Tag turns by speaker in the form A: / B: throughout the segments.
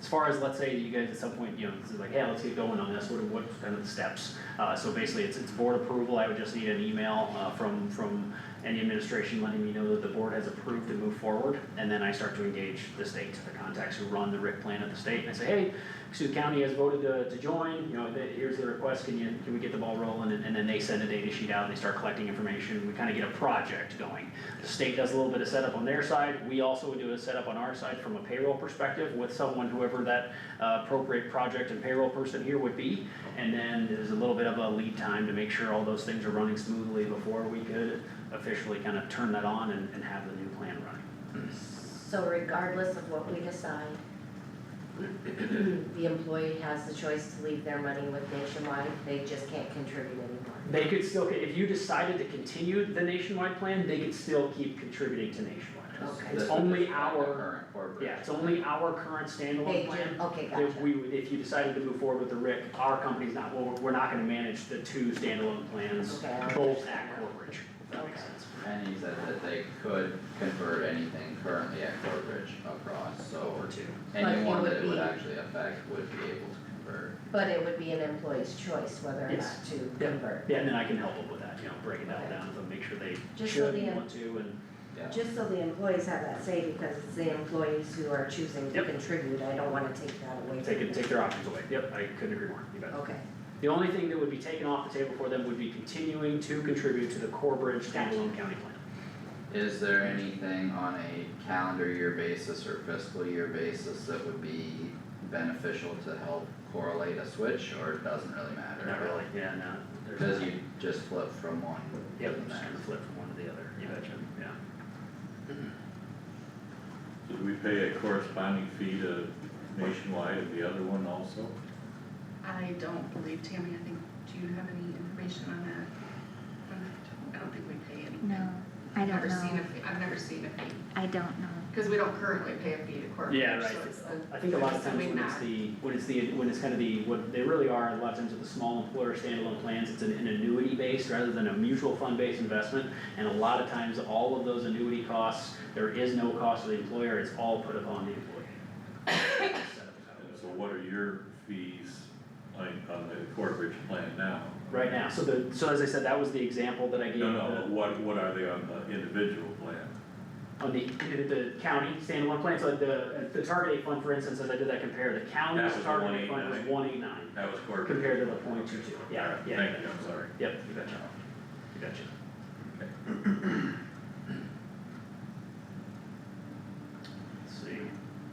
A: as far as, let's say, you guys at some point, you know, this is like, hey, let's get going on this, what, what kind of steps? Uh, so basically, it's, it's board approval, I would just need an email, uh, from, from any administration letting me know that the board has approved to move forward, and then I start to engage the state, the contacts who run the RIC plan at the state, and I say, hey, Sioux County has voted to, to join, you know, th- here's the request, can you, can we get the ball rolling? And, and then they send a data sheet out, they start collecting information, we kinda get a project going. The state does a little bit of setup on their side, we also do a setup on our side from a payroll perspective with someone, whoever that uh, appropriate project and payroll person here would be. And then there's a little bit of a lead time to make sure all those things are running smoothly before we could officially kind of turn that on and, and have the new plan running.
B: So regardless of what we decide, the employee has the choice to leave their money with Nationwide, they just can't contribute anymore.
A: They could still, if you decided to continue the nationwide plan, they could still keep contributing to nationwide.
B: Okay.
A: It's only our,
C: our.
A: yeah, it's only our current
B: They
A: standalone plan.
B: do, okay,
A: If
B: gotcha.
A: we, would- if you decided to move forward with the RIC, our company's not, well, we're not gonna manage the two standalone plans,
B: Okay, I
A: both at Corbridge, if that makes
B: Okay.
A: sense.
C: And he said that they could convert anything currently at Corbridge across, so
A: Over two.
C: anyone
B: But it
C: that it
B: would
C: would
B: be-
C: actually affect would be able to convert.
B: But it would be an employee's choice whether or not
A: Yes.
B: to
A: Yeah.
B: convert.
A: Yeah, and then I can help them with that, you know, breaking that
B: Okay.
A: down, with them, make sure they
B: Just so
A: should
B: the-
A: want to and,
B: Just so the employees have that say, because it's the employees who are choosing to
A: Yep.
B: contribute, I don't wanna take that away.
A: take
B: from
A: it,
B: them.
A: take their options away, yep, I couldn't agree more, you bet.
B: Okay,
A: The only thing that would be taken off the table for them would be continuing to contribute to the Corbridge standalone county plan.
C: Is there anything on a calendar year basis or fiscal year basis that would be beneficial to help correlate a switch, or it doesn't really matter?
A: Not really, yeah, no. there's-
C: Cause you just flip from one to
A: Yep,
C: the
A: just kind
C: next.
A: of flip from one to the other, you betcha, yeah.
D: Did we pay a corresponding fee to Nationwide and the other one also?
E: I don't believe, Tammy, I think, do you have any information on that? I don't- I don't think we pay any.
F: No, I
E: I've
F: don't
E: never seen
F: know.
E: a fee, I've never seen a fee,
F: I don't know.
E: because we don't currently pay a fee to corporate,
A: Yeah, right.
E: so it's the.
A: I think a lot of
E: it's the
A: times
E: way
A: when it's
E: back.
A: the, when it's the, when it's kind of the, what they really are, a lot of times with the small employer standalone plans, it's an an annuity based rather than a mutual fund based investment. And a lot of times, all of those annuity costs, there is no cost to the employer, it's all put upon the employee.
D: And so what are your fees like on the Corbridge plan now?
A: Right now, so the, so as I said, that was the example that I gave,
D: No, no,
A: the-
D: what, what are they on the individual plan?
A: on the, the county standalone plan, so the, the target date fund, for instance, as I did that compare, the county's
D: That was
A: target date fund was
D: 189.
A: one eight nine
D: That was Corbridge.
A: compared to the point two two, yeah,
D: Alright,
A: yeah.
D: Thank you, I'm sorry.
A: Yep, you betcha, you betcha.
D: Okay.
A: Let's see,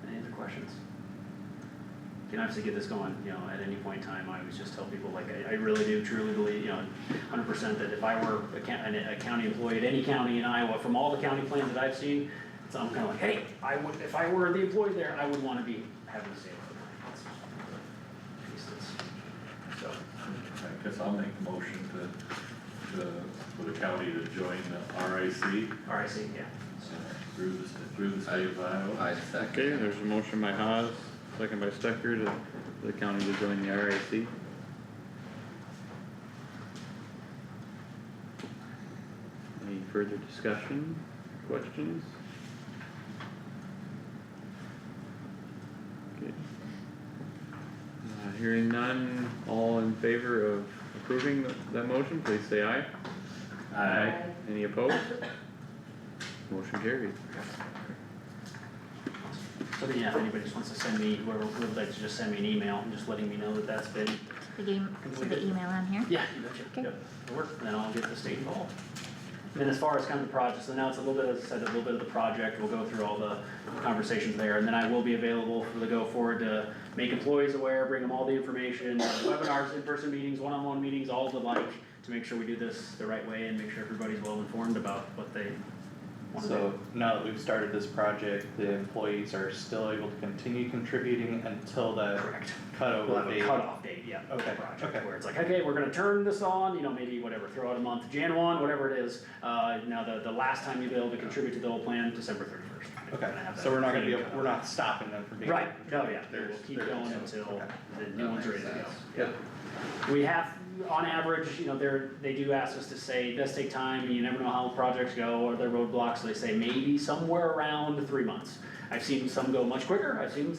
A: any other questions? Can obviously get this going, you know, at any point in time, I always just tell people, like, I, I really do truly believe, you know, hundred percent that if I were a county, a county employee at any county in Iowa, from all the county plans that I've seen, so I'm kinda like, hey, I would, if I were the employee there, I would wanna be having the same. Piece that's, so.
D: I guess I'll make the motion to, to, for the county to join the RIC
A: All right, see, yeah.
D: uh, through the, through the state of Iowa.
C: I second.
G: Okay,
C: that.
G: there's a motion by Haas, second by Stecker to the county to join the RAC. Any further discussion, questions? Okay. Uh, hearing none, all in favor of approving th- that motion, please say aye.
B: Aye.
G: Any opposed? Motion carried.
A: So then, yeah, if anybody just wants to send me, whoever would like to just send me an email, and just letting me know that that's been.
F: The game, so the email on here.
A: Yeah. You betcha.
F: Okay.
A: Yep, it'll work, and then I'll get the state involved. And then as far as kind of the project, so now it's a little bit, as I said, a little bit of the project, we'll go through all the conversations there, and then I will be available for the go forward to make employees aware, bring them all the information, webinars, in-person meetings, one-on-one meetings, all the like, to make sure we do this the right way and make sure everybody's well informed about what they want to do.
H: So now that we've started this project, the employees are still able to continue contributing until that
A: Correct. We'll have
H: cutover
A: a
H: date.
A: cutoff date, yeah, of the
H: Okay,
A: project,
H: okay.
A: where it's like, okay, we're gonna turn this on, you know, maybe whatever, throw out a month, Jan one, whatever it is. Uh, now the, the last time you'll be able to contribute to the whole plan, December thirty first.
H: Okay, so we're not gonna be, able- we're not stopping them from being.
A: Right, no, yeah,
H: They're-
A: we'll keep
H: they're-
A: going until
H: okay.
A: the new
C: That
A: one's ready
C: makes
A: to go.
C: sense.
H: Yeah.
A: We have, on average, you know, they're, they do ask us to say, it does take time, you never know how projects go or their roadblocks, so they say maybe somewhere around three months. I've seen some go much quicker, I've seen some